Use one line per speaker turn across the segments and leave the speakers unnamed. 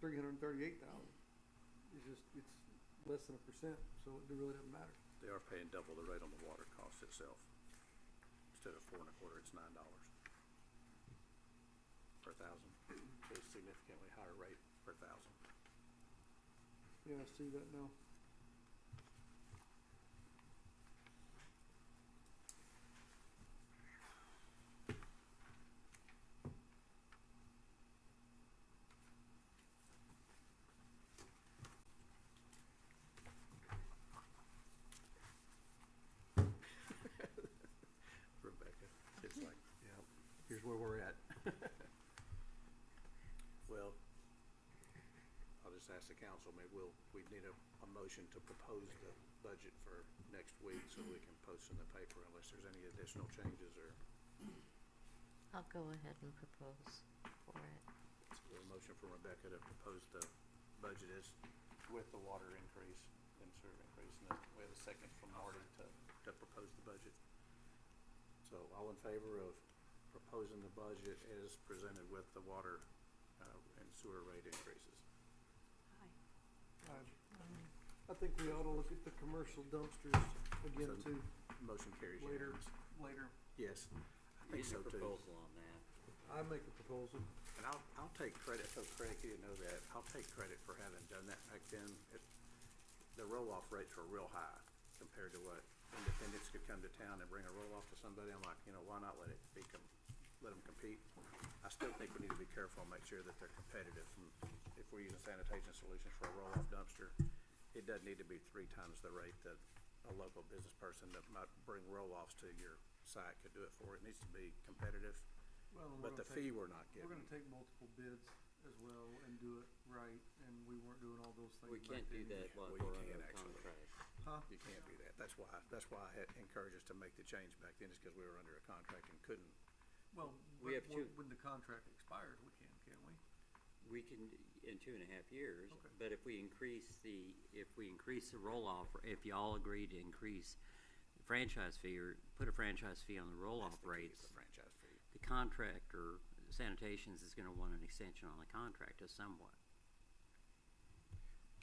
three hundred and thirty-eight thousand. It's just, it's less than a percent, so it really doesn't matter.
They are paying double the rate on the water cost itself. Instead of four and a quarter, it's nine dollars per thousand, so it's significantly higher rate per thousand.
Yeah, I see that now.
Rebecca, it's like, yeah, here's where we're at. Well, I'll just ask the council, maybe we'll, we need a, a motion to propose the budget for next week so we can post in the paper unless there's any additional changes or
I'll go ahead and propose for it.
So a motion from Rebecca to propose the budget is with the water increase and sewer increase, and then we have a second from Marty to, to propose the budget. So all in favor of proposing the budget as presented with the water, uh, and sewer rate increases?
I, I think we ought to look at the commercial dumpsters again
So-
too,
Motion carries
Later.
unanimous.
later.
Yes, I think
Need
so
a
too.
proposal on that.
I make a proposal.
And I'll, I'll take credit, so Craig, you didn't know that, I'll take credit for having done that back then. It- The roll-off rates were real high compared to what independents could come to town and bring a roll-off to somebody. I'm like, you know, why not let it be, com- let them compete? I still think we need to be careful and make sure that they're competitive. If we're using sanitation solutions for a roll-off dumpster, it doesn't need to be three times the rate that a local business person that might bring roll-offs to your site could do it for. It needs to be competitive,
Well, and we're
but the
gonna take-
fee we're not
We're
getting.
gonna take multiple bids as well and do it right, and we weren't doing all those things
We
back
can't do
then.
that
Well,
while
you
we're
can
under a
actually.
contract.
Huh?
You can't do that. That's why, that's why I had encouraged us to make the change back then, is because we were under a contract and couldn't.
Well, but
We have
when-
two.
when the contract expires, we can, can't we?
We can, d- in two and a half years,
Okay.
but if we increase the, if we increase the roll-off, if y'all agree to increase the franchise fee or put a franchise fee on the roll-off
That's the key, is
rates,
The franchise fee.
the contractor, sanitations is gonna want an extension on the contract of somewhat.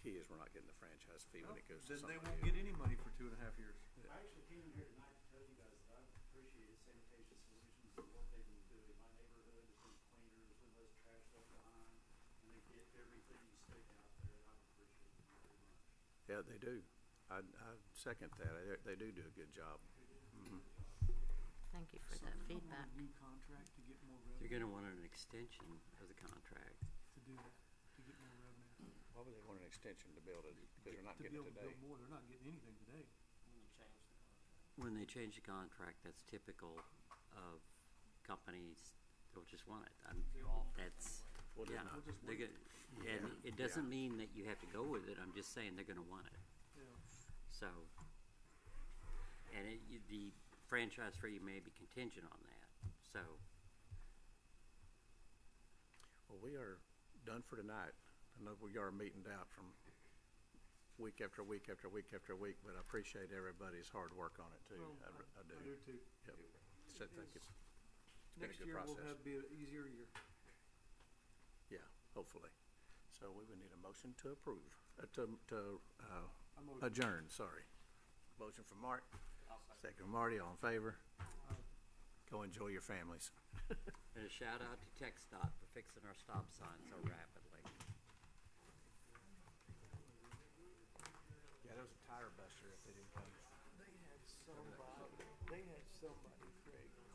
Key is we're not getting the franchise fee when
Well,
it goes to
Then they
somebody
won't
else.
get any money for two and a half years.
I actually came in here tonight to tell you guys that I've appreciated sanitation solutions and what they've been doing. My neighborhood has been cleaner, there's been less trash left behind, and they get everything you stick out there, and I appreciate it very much.
Yeah, they do. I, I second that. They- They do do a good job.
Thank you for that feedback.
new contract to get more
They're
revenue,
gonna want an extension of the contract.
to do that, to get more revenue.
Why would they want an extension to build it? Because they're not
To be
getting
able
it
to build
today.
more, they're not getting anything today.
When they change the contract, that's typical of companies, they'll just want it. I'm- That's,
Well,
yeah,
they're not.
just
they're
want
gonna- and it doesn't mean that you have to go with it, I'm just saying they're gonna want it,
Mm-hmm.
Yeah.
so. And it, you- the franchise fee may be contingent on that, so,
Well, we are done for tonight. I know we are meeting out from week after week after week after week, but I appreciate everybody's hard work on it too.
Well,
I, re- I do.
I do too.
Yep. So thank you. It's been a
Next
good
year
process.
will have, be an easier year.
Yeah, hopefully. So we would need a motion to approve, uh, to, to, uh,
I'm over.
adjourn, sorry. Motion from Mark. Second from Marty, all in favor? Go enjoy your families.
and a shout out to Tech Stop for fixing our stop sign so rapidly.
Yeah, there was a tire buster if they didn't come.
They had somebody, they had somebody